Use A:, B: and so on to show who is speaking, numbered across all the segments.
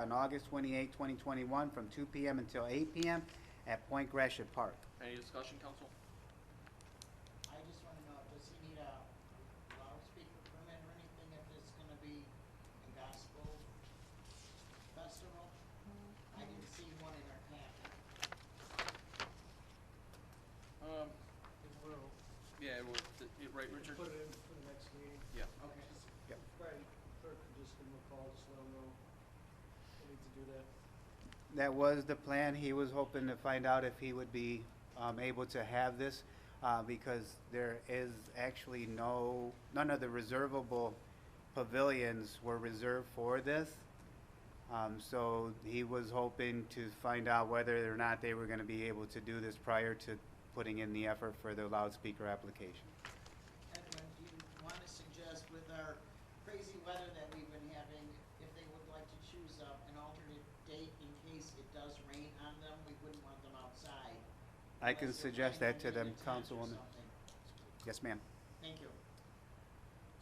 A: on August 28, 2021, from 2 PM until 8 PM at Point Gresham Park.
B: Any discussion, council?
C: I just wanna know, does he need a loudspeaker permit or anything if it's gonna be a gospel festival? I didn't see one in our packet.
B: Um,
D: It will.
B: yeah, it was, it- right, Richard?
D: Put it in for the next meeting.
B: Yeah.
C: Okay.
D: Brian, clerk could just give them a call, just let them know. We need to do that.
A: That was the plan. He was hoping to find out if he would be um, able to have this uh, because there is actually no, none of the reservable pavilions were reserved for this. Um, So he was hoping to find out whether or not they were going to be able to do this prior to putting in the effort for the loudspeaker application.
C: Edwin, do you wanna suggest with our crazy weather that we've been having, if they would like to choose a, an alternate date in case it does rain on them, we wouldn't want them outside.
A: I can
C: unless they're
A: suggest that
C: planning on
A: to
C: doing
A: them,
C: a tent or
A: Councilwoman.
C: something.
A: Yes, ma'am.
C: Thank you.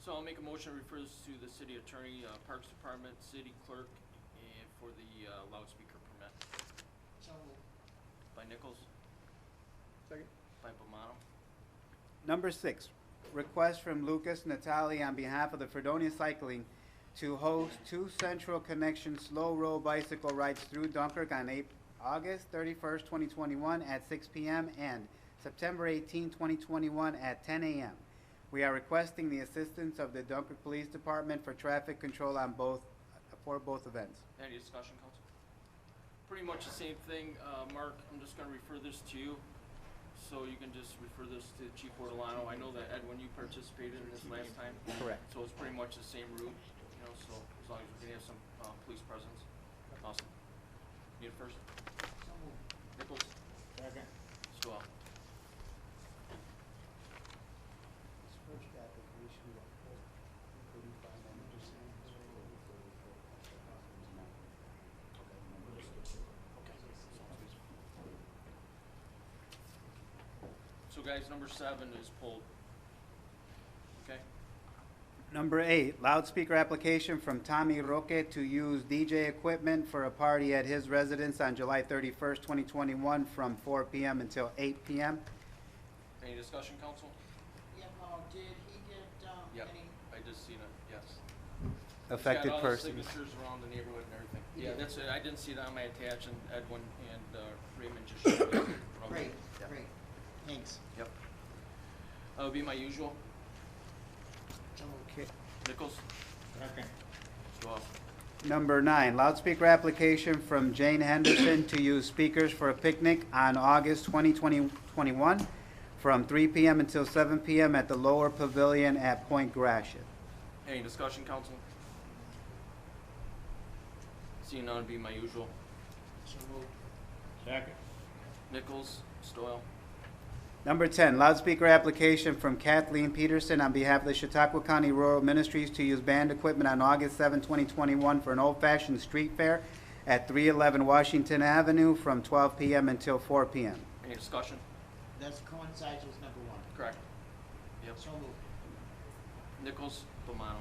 B: So I'll make a motion that refers to the city attorney, uh, Parks Department, city clerk, and for the uh, loudspeaker permit
C: So moved.
B: by Nichols,
D: Second.
B: by Bomano.
A: Number six, request from Lucas Natali on behalf of the Fredonia Cycling to host two Central Connection slow roll bicycle rides through Dunkirk on Ap- August thirty-first, twenty twenty-one at six P M. and September 18, 2021, at ten A M. We are requesting the assistance of the Dunkirk Police Department for traffic control on both, for both events.
B: Any discussion, council? Pretty much the same thing, uh, Mark, I'm just gonna refer this to you, so you can just refer this to Chief Ortolano. I know that Edwin, you participated in this last time,
A: Correct.
B: so it's pretty much the same route, you know, so as long as we can have some, uh, police presence. Awesome. Need a first?
C: So moved.
B: Nichols? Second. Swell.
D: This first application, like, thirty-five hundred percent.
B: So guys, number seven is pulled. Okay?
A: Number eight, loudspeaker application from Tommy Roque to use DJ equipment for a party at his residence on July thirty-first, twenty twenty-one, from four PM until eight PM.
B: Any discussion, council?
C: Yeah, Paul, did he get, um,
B: Yep,
C: any,
B: I just seen it, yes. It's got
A: Affected
B: all the
A: persons.
B: signatures around the neighborhood and everything.
C: Yeah.
B: Yeah, that's it, I didn't see it on my attach, and Edwin and uh, Raymond just showed me. from-
C: great,
B: Yeah.
C: great, thanks.
B: Yep. That would be my usual.
A: Okay.
B: Nichols? Second. Swell.
A: Number nine, loudspeaker application from Jane Henderson to use speakers for a picnic on August 20, 2021, from three PM until seven PM at the Lower Pavilion at Point Gratiot.
B: Any discussion, council? Seeing none would be my usual.
C: So moved.
B: Nichols, Stoyl.
A: Number 10, loudspeaker application from Kathleen Peterson on behalf of the Chautauqua County Rural Ministries to use band equipment on August 7, 2021 for an old-fashioned street fair at 311 Washington Avenue from 12 PM until 4 PM.
B: Any discussion?
C: That's coincides with number one.
B: Correct. Yep.
C: So moved.
B: Nichols, Bomano.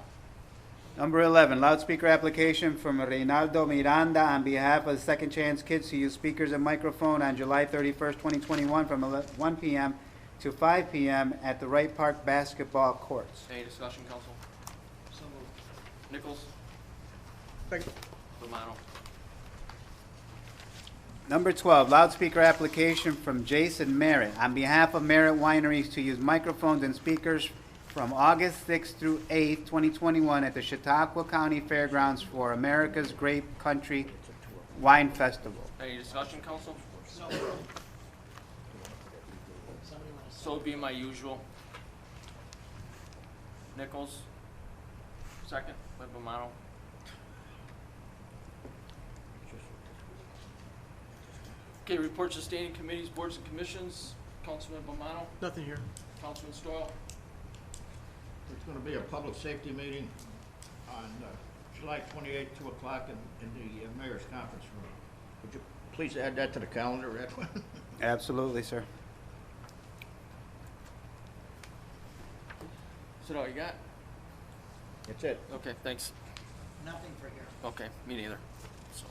A: Number 11, loudspeaker application from Reynaldo Miranda on behalf of Second Chance Kids to use speakers and microphone on July 31st, 2021 from 11 1 PM to 5 PM at the Wright Park Basketball Courts.
B: Any discussion, council?
C: So moved.
B: Nichols? Second. Bomano.
A: Number 12, loudspeaker application from Jason Merritt on behalf of Merritt Wineries to use microphones and speakers from August 6th through 8th, 2021 at the Chautauqua County Fairgrounds for America's Grape Country Wine Festival.
B: Any discussion, council?
C: So moved. Somebody wanna
B: So
C: second?
B: it'd be my usual. Nichols, second, by Bomano. Okay, reports to standing committees, boards and commissions, Councilman Bomano,
E: Nothing here.
B: Councilman Stoyl.
E: There's gonna be a public safety meeting on uh, July twenty-eighth, two o'clock in, in the uh, mayor's conference room. Would you please add that to the calendar, Edwin?
A: Absolutely, sir.
B: Is that all you got?
E: That's it.
B: Okay, thanks.
C: Nothing for here.
B: Okay, me neither. So.